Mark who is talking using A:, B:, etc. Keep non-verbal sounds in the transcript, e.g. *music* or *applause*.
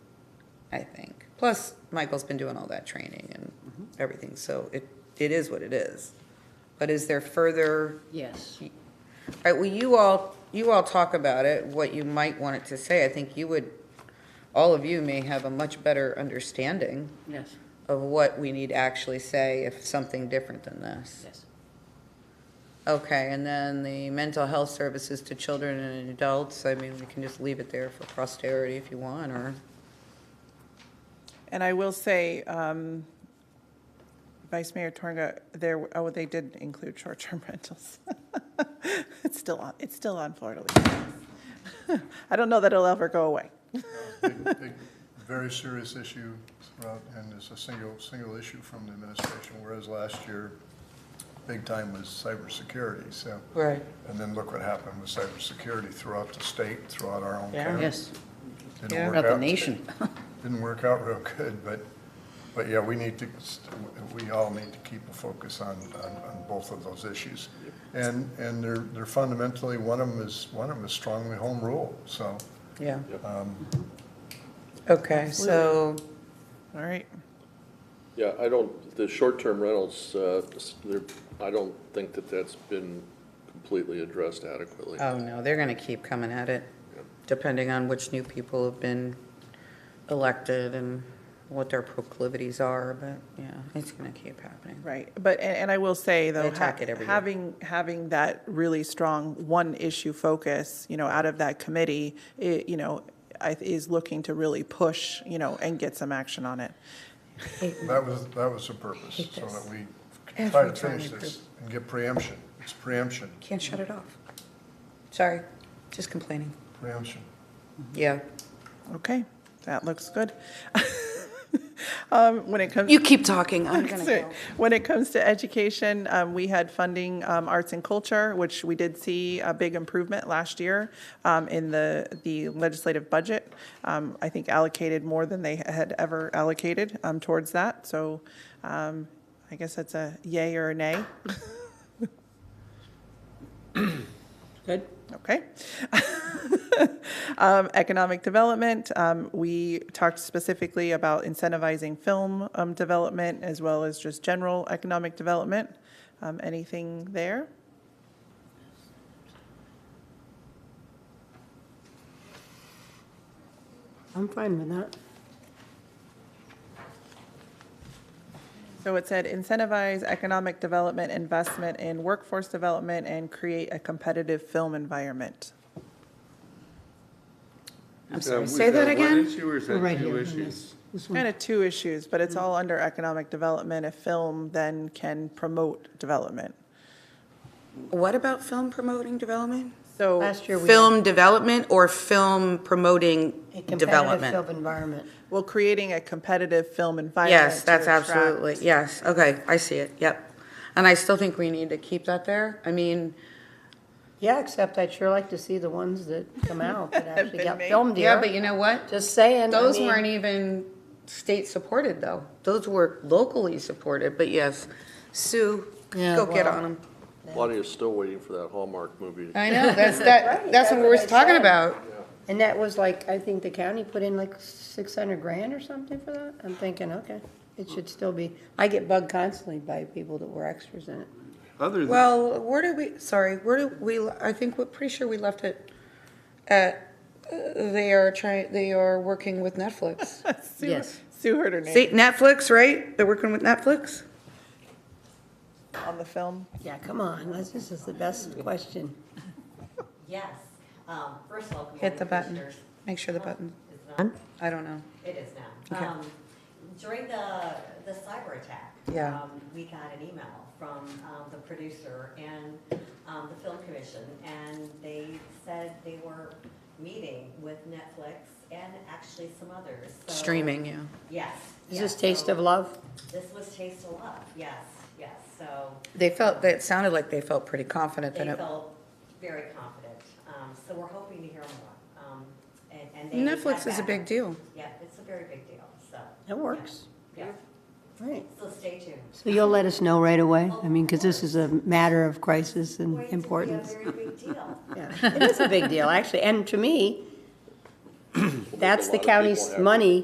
A: I think. Plus, Michael's been doing all that training and everything, so it, it is what it is. But is there further,
B: Yes.
A: all right, well, you all, you all talk about it, what you might want it to say. I think you would, all of you may have a much better understanding
B: Yes,
A: of what we need to actually say if something different than this.
B: yes.
A: Okay, and then the mental health services to children and adults, I mean, we can just leave it there for posterity if you want, or,
C: And I will say, um, Vice Mayor Torga, there, oh, they did include short-term *laughs* rentals. It's still on, it's still on Florida League. *laughs* I don't know that it'll ever go away.
D: Big- big, Very serious issue throughout, and it's a single, single issue from the administration, whereas last year, big time was cybersecurity, so.
A: Right.
D: And then look what happened with cybersecurity throughout the state, throughout our own
C: Yeah.
D: county.
B: Yes,
D: Didn't
A: Yeah.
D: work
B: about the
D: out.
B: nation.
D: Didn't work out real good, but, but yeah, we need to, we all need to keep a focus on, on, on both of those issues. And, and they're, they're fundamentally, one of them is, one of them is strongly home rule, so.
A: yeah. Okay, so,
C: All right,
E: Yeah, I don't, the short-term rentals, uh, s- they're- I don't think that that's been completely addressed adequately.
A: oh no, they're gonna keep coming at it, depending on which new people have been elected and what their proclivities are, but, yeah, it's gonna keep happening.
C: right. But, and, and I will say though,
A: They attack
C: ha-
A: it every year.
C: having, having that really strong one-issue focus, you know, out of that committee, it, you know, I- is looking to really push, you know, and get some action on it.
D: That was, that was the purpose, so
A: this.
D: that we try
A: Every
D: to
A: time
D: finish
A: we
D: this and get preemption. It's preemption,
A: Can't shut it off. Sorry, just complaining.
D: preemption.
A: Yeah.
C: Okay, that looks good. *laughs* Um, When it comes.
A: You keep talking, I'm
C: *laughs*
A: gonna
C: Sorry.
A: go.
C: When it comes to education, um, we had funding um, arts and culture, which we did see a big improvement last year um, in the, the legislative budget. Um, I think allocated more than they had ever allocated um, towards that. So um, I guess that's a yay or a nay.
B: Good?
C: Okay. Um, Economic development, um, we talked specifically about incentivizing film um, development as well as just general economic development. Um, Anything there?
B: I'm fine with that.
C: So it said incentivize economic development, investment in workforce development, and create a competitive film environment.
B: I'm
F: Uh,
B: sorry.
F: was
A: say that again?
F: one issue or is
B: We're right
F: that
B: here
F: two
B: on
F: issues?
B: this, this one.
C: Kind of two issues, but it's all under economic development. If film then can promote development.
A: What about film promoting development?
C: So.
G: Last year, we had
A: Film development or film promoting
G: a competitive
A: development?
G: film environment.
C: Well, creating a competitive film environment.
A: Yes,
C: to
A: that's
C: attract-
A: absolutely, yes, okay, I see it, yep. And I still think we need to keep that there. I mean,
G: Yeah, except I'd sure like to see the ones that come out that actually
C: been
G: got
C: made.
G: filmed
A: yeah,
G: here.
A: but you know what?
G: Just saying. I
A: Those
G: mean,
A: weren't even state-supported, though. Those were locally supported, but yes. Sue,
G: Yeah,
A: go get
G: well-
A: on them.
E: Lonnie is still waiting for that Hallmark movie.
A: I know, that's, *laughs* that, that's what
G: that's
A: we
G: what
A: were
G: I
A: talking
G: said.
A: about.
G: And that was like, I think the county put in like six hundred grand or something for that. I'm thinking, okay, it should still be. I get bugged constantly by people that were extras in it.
F: Other than,
A: Well, where did we, sorry, where did we, I think, we're pretty sure we left it at, uh, they are trying, they are working with *laughs* Netflix.
C: Sue-
B: Yes.
C: Sue heard her name
A: See, Netflix, right? They're working with Netflix?
C: on the film.
G: Yeah, come on, that's- this is the best question.
H: Yes. Um, First of all, good
A: Hit the
H: morning,
A: button.
H: commissioners.
A: Make sure the button,
H: It's not?
A: I don't know.
H: It is now.
A: Okay.
H: Um, During the, the cyber attack.
A: Yeah.
H: um, We got an email from um, the producer and um, the film commission, and they said they were meeting with Netflix and actually some others. so-
A: Streaming, yeah.
H: Yes.
G: Is
H: yes,
G: this Taste
H: so
G: of Love?
H: This was Taste of Love, yes, yes. So
A: They felt, that sounded like they felt pretty confident
H: they
A: that it,
H: felt very confident. Um, So we're hoping to hear more. Um, and- and they
A: Netflix
H: had
A: is a
H: that.
A: big deal.
H: Yeah, it's a very big deal, so.
G: That works.
H: Yeah,
G: Right.
H: so stay tuned.
G: So you'll let us know right away? I mean, because this is a matter of crisis and
H: Going to be a
G: importance.
H: very big deal.
G: Yeah, It is a big deal, actually, and to me,
E: Will make a
G: that's
E: lot
G: the
E: of people
G: county's
E: happy.
G: money